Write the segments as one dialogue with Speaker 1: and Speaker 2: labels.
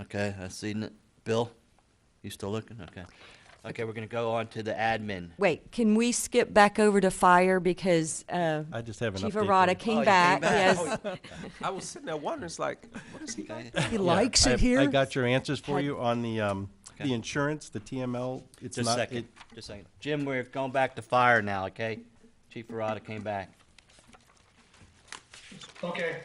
Speaker 1: Okay, I seen it. Bill, you still looking? Okay. Okay, we're gonna go on to the admin.
Speaker 2: Wait, can we skip back over to fire because uh,
Speaker 3: I just have an
Speaker 2: Chief
Speaker 3: update for you.
Speaker 2: Arata
Speaker 1: Oh,
Speaker 2: came
Speaker 1: you came
Speaker 2: back,
Speaker 1: back. Oh,
Speaker 2: yes.
Speaker 4: I was sitting there wondering, it's like, what is he?
Speaker 1: Okay.
Speaker 5: He
Speaker 3: Yeah,
Speaker 5: likes
Speaker 3: I-
Speaker 5: it here.
Speaker 3: I got your answers for you on the, um,
Speaker 1: Okay.
Speaker 3: the insurance, the TML. It's
Speaker 1: Just a
Speaker 3: not-
Speaker 1: second,
Speaker 3: it-
Speaker 1: just a second. Jim, we're going back to fire now, okay? Chief Ferrata came back.
Speaker 6: Okay.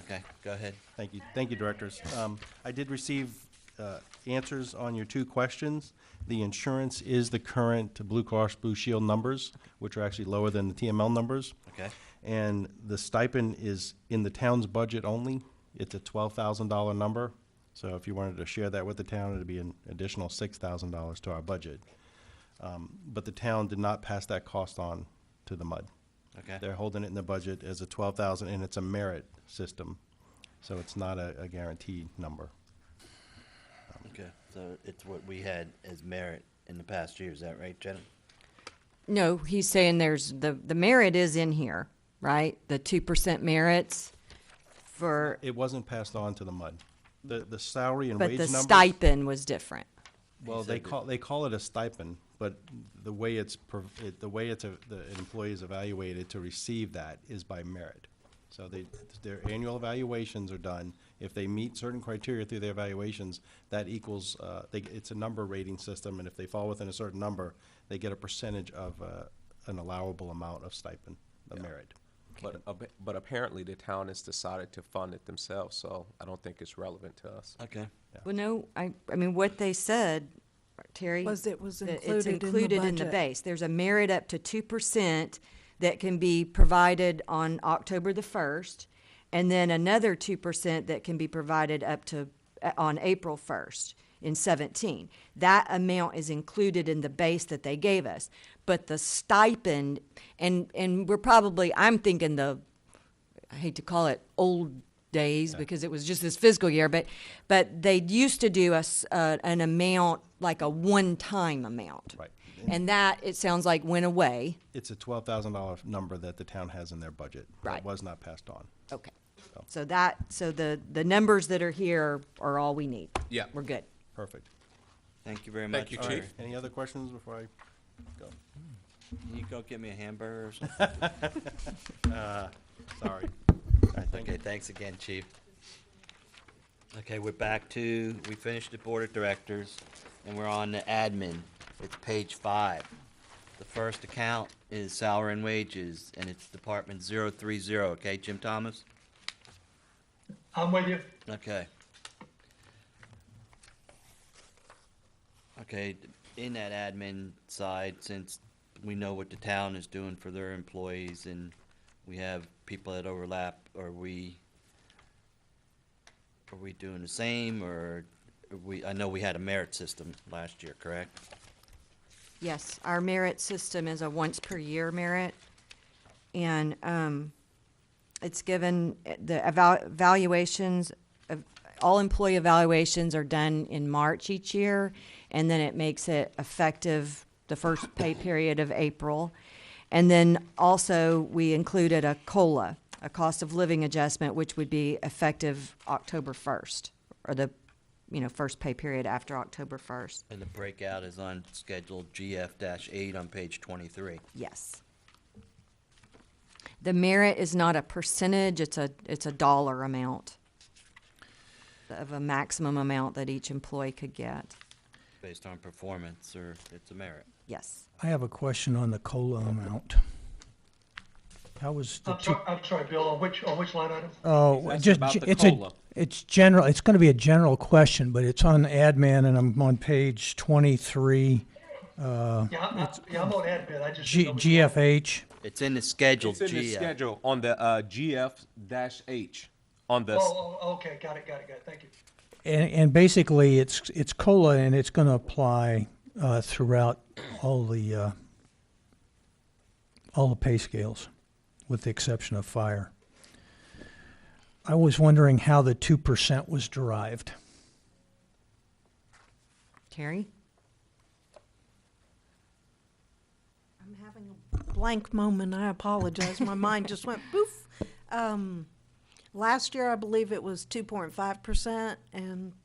Speaker 1: Okay, go ahead.
Speaker 3: Thank you, thank you, Directors. Um, I did receive uh, answers on your two questions. The insurance is the current Blue Cross Blue Shield numbers, which are actually lower than the TML numbers.
Speaker 1: Okay.
Speaker 3: And the stipend is in the town's budget only. It's a twelve thousand dollar number. So if you wanted to share that with the town, it'd be an additional six thousand dollars to our budget. Um, But the town did not pass that cost on to the MUD.
Speaker 1: Okay.
Speaker 3: They're holding it in the budget as a twelve thousand, and it's a merit system, so it's not a, a guaranteed number.
Speaker 1: Okay, so it's what we had as merit in the past year, is that right, Jenna?
Speaker 2: No, he's saying there's, the, the merit is in here, right? The 2% merits for,
Speaker 3: It wasn't passed on to the MUD. The, the salary and
Speaker 2: but
Speaker 3: wage
Speaker 2: the
Speaker 3: numbers,
Speaker 2: stipend was different.
Speaker 3: well, they call, they call it a stipend, but the way it's, prov- it- the way it's, a- the employee is evaluated to receive that is by merit. So they, their annual evaluations are done. If they meet certain criteria through their evaluations, that equals, uh, they, it's a number rating system, and if they fall within a certain number, they get a percentage of, uh, an allowable amount of stipend, the merit.
Speaker 4: But, ab- but apparently the town has decided to fund it themselves, so I don't think it's relevant to us.
Speaker 1: Okay.
Speaker 2: Well, no, I, I mean, what they said, Terry.
Speaker 5: Was it was
Speaker 2: that
Speaker 5: included in the
Speaker 2: It's included in the
Speaker 5: budget.
Speaker 2: base. There's a merit up to two percent that can be provided on October the first, and then another two percent that can be provided up to, uh, on April first in seventeen. That amount is included in the base that they gave us. But the stipend, and, and we're probably, I'm thinking the I hate to call it old days because it was just this fiscal year, but but they used to do us uh, an amount like a one-time amount,
Speaker 3: Right.
Speaker 2: And that it sounds like went away.
Speaker 3: It's a twelve thousand dollar number that the town has in their budget.
Speaker 2: Right.
Speaker 3: That was not passed on.
Speaker 2: Okay, so that so the the numbers that are here are all we need.
Speaker 4: Yeah.
Speaker 2: we're good.
Speaker 3: Perfect.
Speaker 1: Thank you very much.
Speaker 4: Thank you,
Speaker 1: All right.
Speaker 4: Chief.
Speaker 3: Any other questions before I go?
Speaker 1: Can you go get me a hamburger or something?
Speaker 3: Sorry.
Speaker 1: Okay, thanks again, Chief. Okay, we're back to, we finished the Board of Directors, and we're on the admin. It's page five. The first account is salary and wages, and it's Department 030, okay, Jim Thomas?
Speaker 6: I'm with you.
Speaker 1: Okay. Okay, in that admin side, since we know what the town is doing for their employees and we have people that overlap, are we, are we doing the same or are we, I know we had a merit system last year, correct?
Speaker 2: Yes, our merit system is a once per year merit, and um, it's given the eval- evaluations. Of, all employee evaluations are done in March each year, and then it makes it effective the first pay period of April. And then also we included a COLA, a cost of living adjustment, which would be effective October first, or the you know first pay period after October first.
Speaker 1: And the breakout is on schedule GF eight on page twenty-three.
Speaker 2: Yes. The merit is not a percentage, it's a, it's a dollar amount of a maximum amount that each employee could get.
Speaker 1: Based on performance or it's a merit.
Speaker 2: Yes.
Speaker 5: I have a question on the cola amount. How was the
Speaker 6: I'm
Speaker 5: two?
Speaker 6: sorry, I'm sorry, Bill, on which, on which line item?
Speaker 5: Oh,
Speaker 4: asking
Speaker 5: just
Speaker 4: about
Speaker 5: ge-
Speaker 4: the
Speaker 5: it's a
Speaker 4: COLA.
Speaker 5: it's general. It's going to be a general question, but it's on admin, and I'm on page twenty three.
Speaker 6: Yeah, I'm, I'm- yeah, I'm on admin, I just.
Speaker 5: G,
Speaker 6: didn't know which-
Speaker 5: GFH.
Speaker 1: It's in the schedule
Speaker 4: It's in the
Speaker 1: GF.
Speaker 4: schedule on the uh, GF dash H on the. s-
Speaker 6: Oh, oh, okay, got it, got it, got it, thank you.
Speaker 5: And, and basically, it's it's cola, and it's going to apply uh, throughout all the uh, all the pay scales, with the exception of fire. I was wondering how the two percent was derived.
Speaker 2: Terry?
Speaker 7: I'm having a blank moment. I apologize. My mind just went poof. Um, last year, I believe it was 2.5%, and